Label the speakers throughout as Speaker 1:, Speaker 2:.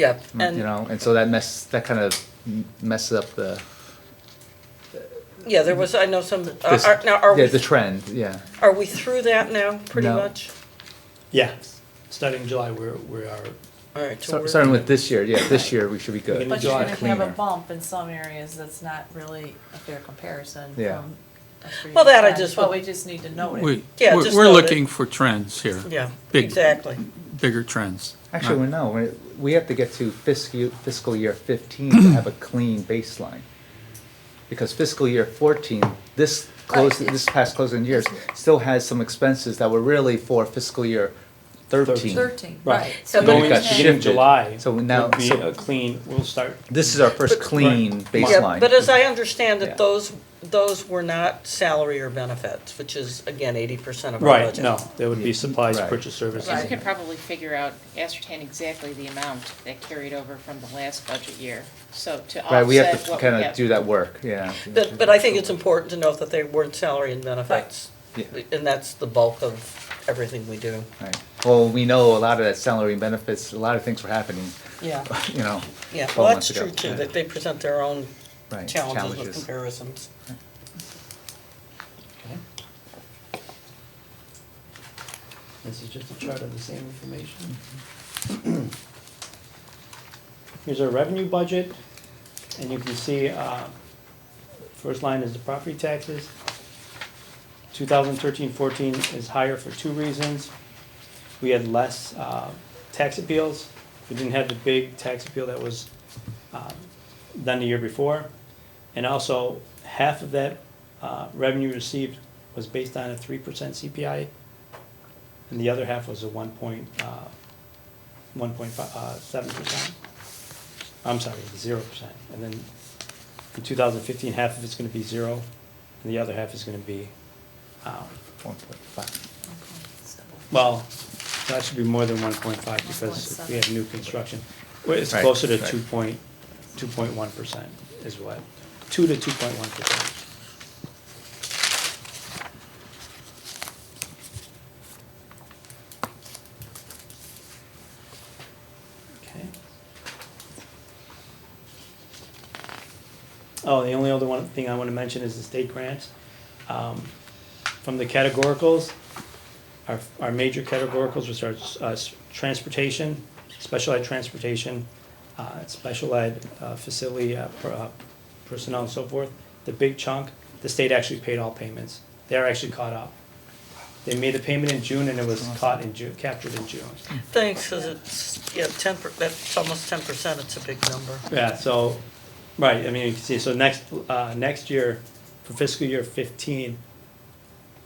Speaker 1: Yep,
Speaker 2: Mm, you
Speaker 1: and,
Speaker 2: know, and so that mess, that kind of messes up the,
Speaker 1: yeah, there was, I know some, are-
Speaker 2: this-
Speaker 1: are, now, are
Speaker 2: yeah,
Speaker 1: we,
Speaker 2: the trend, yeah.
Speaker 1: are we through that now, pretty
Speaker 2: No.
Speaker 1: much?
Speaker 3: Yeah, starting July, we're, we are,
Speaker 1: All right, so
Speaker 2: Start-
Speaker 1: we're.
Speaker 2: Starting with this year, yeah, this year we should be good.
Speaker 3: Beginning
Speaker 4: But
Speaker 3: Enjoy
Speaker 4: you're
Speaker 3: it
Speaker 4: gonna have a
Speaker 2: cleaner.
Speaker 4: bump in some areas that's not really a fair comparison
Speaker 2: Yeah.
Speaker 4: from a previous
Speaker 1: Well, that I
Speaker 4: time,
Speaker 1: just
Speaker 4: But
Speaker 1: would-
Speaker 4: we just need to note it.
Speaker 5: We,
Speaker 1: Yeah,
Speaker 5: we're
Speaker 1: just
Speaker 5: we're
Speaker 1: note it.
Speaker 5: looking for trends here,
Speaker 1: Yeah,
Speaker 5: Big-
Speaker 1: exactly.
Speaker 5: bigger trends.
Speaker 2: Actually,
Speaker 5: Not-
Speaker 2: we're no, we're- we have to get to fiscal, fiscal year fifteen to have a clean baseline. Because fiscal year fourteen, this close, this past closing years, still has some expenses that were really for fiscal year thirteen.
Speaker 4: Thirteen,
Speaker 3: Right.
Speaker 4: right. So
Speaker 2: But it
Speaker 3: going
Speaker 2: got
Speaker 3: beginning
Speaker 2: shifted.
Speaker 3: of July.
Speaker 2: So now-
Speaker 3: would be
Speaker 2: so-
Speaker 3: a clean, we'll start,
Speaker 2: This is our first clean
Speaker 1: Yeah,
Speaker 2: baseline.
Speaker 1: but as I understand
Speaker 2: Yeah.
Speaker 1: it, those, those were not salary or benefits, which is, again, eighty percent of our
Speaker 3: right,
Speaker 1: budget.
Speaker 3: no, there would be
Speaker 2: Yeah,
Speaker 3: supplies,
Speaker 2: right.
Speaker 3: purchase services.
Speaker 6: So we could probably figure out, ascertain exactly the amount that carried over from the last budget year, so to
Speaker 2: Right, we have
Speaker 6: offset
Speaker 2: to
Speaker 6: what we
Speaker 2: kind of
Speaker 6: have.
Speaker 2: do that work, yeah.
Speaker 1: But, but I think it's important to note that they weren't salary and benefits,
Speaker 2: Yeah.
Speaker 1: and that's the bulk of everything we do.
Speaker 2: Right. Well, we know a lot of that salary and benefits, a lot of things were happening,
Speaker 1: Yeah.
Speaker 2: you know.
Speaker 1: Yeah,
Speaker 2: 12
Speaker 1: well, that's
Speaker 2: months ago.
Speaker 1: true too,
Speaker 2: Yeah.
Speaker 1: that they present their own
Speaker 2: Right,
Speaker 1: challenges with
Speaker 2: challenges.
Speaker 1: comparisons.
Speaker 7: This is just a chart of the same information.
Speaker 3: Here's our revenue budget, and you can see, uh, first line is the property taxes. 2013-14 is higher for two reasons. We had less uh, tax appeals. We didn't have the big tax appeal that was um, done the year before. And also, half of that uh, revenue received was based on a 3% CPI, and the other half was a uh, 1.7%. uh, I'm sorry, zero percent. And then in two thousand fifteen, half of it's gonna be zero, and the other half is gonna be, um,
Speaker 2: One point five.
Speaker 3: well, that should be more than one point five because we have new construction. Well, It's
Speaker 2: Right,
Speaker 3: closer to
Speaker 2: right.
Speaker 3: two point, two point one percent is what, two to two point one percent. Okay. Oh, the only other one thing I want to mention is the state grants. Um, From the categoricals, our, our major categoricals, which are uh, s- transportation, special ed transportation, uh, special ed uh, facility uh, per- uh, personnel and so forth, the big chunk, the state actually paid all payments. They're actually caught up. They made a payment in June and it was caught in June, captured in June.
Speaker 1: Thanks, 'cause it's, yeah, ten, per- that's almost ten percent, it's a big number.
Speaker 3: Yeah, so, right, I mean, you can see, so next, uh, next year, for fiscal year fifteen,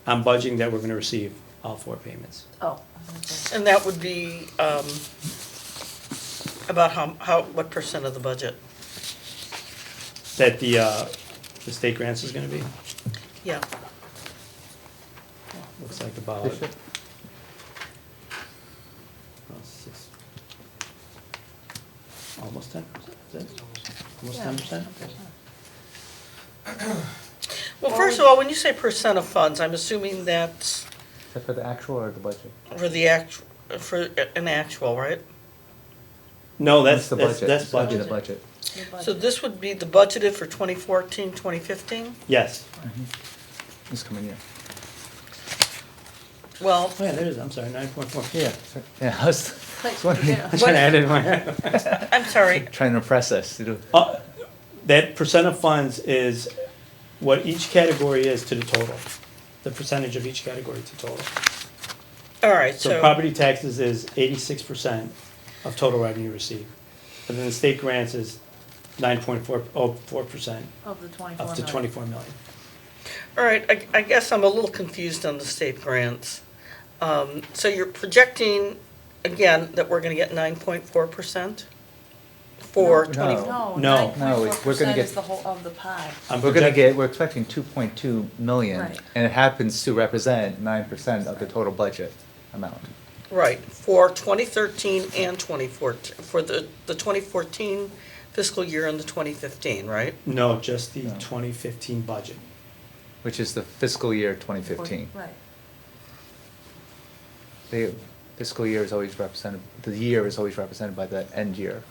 Speaker 3: I'm budgeting that we're gonna receive all four payments.
Speaker 4: Oh.
Speaker 1: And that would be, um, about how, how, what percent of the budget?
Speaker 3: That the, uh, the state grants is gonna be,
Speaker 1: Yeah,
Speaker 3: looks like about.
Speaker 2: This year?
Speaker 3: Oh, six- Almost ten percent, is it? Almost ten percent?
Speaker 1: well, first of all, when you say percent of funds, I'm assuming that's
Speaker 2: Is that for the actual or the budget?
Speaker 1: for the act, for an actual, right?
Speaker 3: No, that's,
Speaker 2: the
Speaker 3: that's,
Speaker 2: budget.
Speaker 3: that's
Speaker 2: That'd be the
Speaker 3: budget,
Speaker 2: budget.
Speaker 1: So this would be the budgeted for 2014, 2015?
Speaker 3: yes.
Speaker 2: This coming year.
Speaker 1: Well,
Speaker 3: Oh, yeah, there it is, I'm sorry, nine point four.
Speaker 2: Yeah, so- yeah, I was, I was wondering,
Speaker 4: Yeah.
Speaker 3: I should have added my.
Speaker 1: I'm sorry,
Speaker 2: trying to impress us, you know.
Speaker 3: Uh, That percent of funds is what each category is to the total, the percentage of each category to total.
Speaker 1: all right,
Speaker 3: So
Speaker 1: so,
Speaker 3: property taxes is eighty-six percent of total revenue received. And then the state grants is nine point four, oh, four percent
Speaker 4: Of the twenty-four
Speaker 3: up to
Speaker 4: million.
Speaker 3: twenty-four million.
Speaker 1: all right, I- I guess I'm a little confused on the state grants. Um, So you're projecting, again, that we're going to get 9.4% for 20?
Speaker 2: No.
Speaker 4: No,
Speaker 3: No.
Speaker 4: nine
Speaker 2: No, we're
Speaker 4: point four
Speaker 2: gonna
Speaker 4: percent
Speaker 2: get-
Speaker 4: is the whole of the pie.
Speaker 3: I'm
Speaker 2: We're gonna
Speaker 3: project-
Speaker 2: get, we're expecting two point two million,
Speaker 4: Right.
Speaker 2: and it happens to represent nine percent of the total budget amount.
Speaker 1: Right, for 2013 and 2014, for the the 2014 fiscal year and the 2015, right?
Speaker 3: No, just the
Speaker 2: No.
Speaker 3: twenty fifteen budget.
Speaker 2: Which is the fiscal year twenty fifteen.
Speaker 4: Right.
Speaker 2: The fiscal year is always represented, the year is always represented by the end year.